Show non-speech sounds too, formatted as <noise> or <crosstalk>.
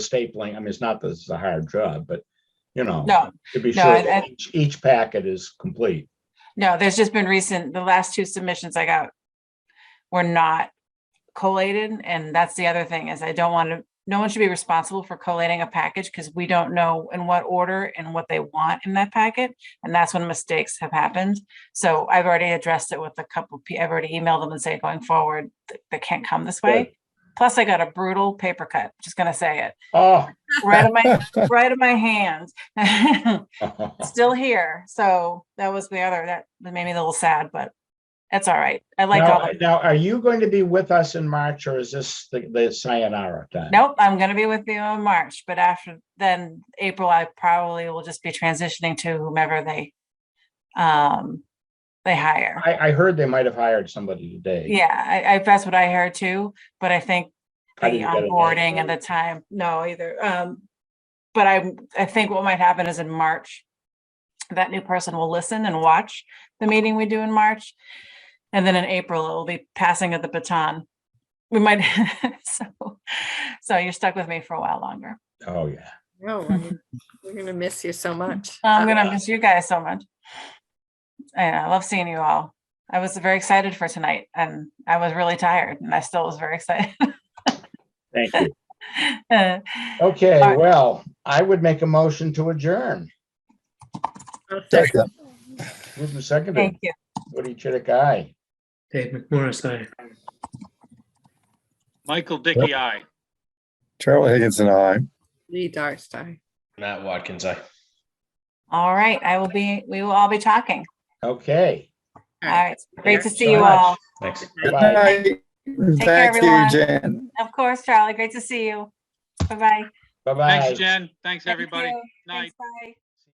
stapling, I mean, it's not that this is a hard job, but, you know, No, to be no, sure I- that each, each packet is complete. no, there's just been recent, the last two submissions I got were not collated, and that's the other thing, is I don't want to, no one should be responsible for collating a package, because we don't know in what order and what they want in that packet, and that's when mistakes have happened. So I've already addressed it with a couple, of pe- I've already emailed them and say, going forward, th- they can't come this way. Plus, I got a brutal paper cut, just gonna say it, Oh. right in my, right in my <laughs> hand. still here. So that was the other, that that made me a little sad, but that's all right. I <laughs> like all Now, of it. now, are you going to be with us in March or is this the, the sayonara time? Nope, I'm gonna be with you in March, but after then, April, I probably will just be transitioning to whomever they um, they hire. I, I heard they might have hired somebody today. Yeah, I, I, that's what I heard too, but I think I the didn't get it. onboarding and the time, no either. Um, but I, I think what might happen is in March, that new person will listen and watch the meeting we do in March. And then in April, it will be passing of the baton. We might, <laughs> so, so you're stuck with me for a while longer. Oh, yeah. No, I mean, we're gonna miss you so much. <laughs> I'm gonna miss you guys so much. And I love seeing you all. I was very excited for tonight and I was really tired and I still was very excited. Thank you. <laughs> Uh, Okay, All right. well, I would make a motion to adjourn. I'll second. Second. Moved and seconded. Thank you. Woody Chidick, aye. Dave McMorris, aye. Michael Dickey, aye. Charlie Higginson, aye. Lee Darcey. Matt Watkins, aye. All right, I will be, we will all be talking. Okay. All right, great to so see you much. all. Thanks. Bye. Thank you, everyone. Jen. Of course, Charlie, great to see you. Bye-bye. Thank Bye-bye. Thanks, Jen. Thanks, everybody. you. Night. Thanks, Bye.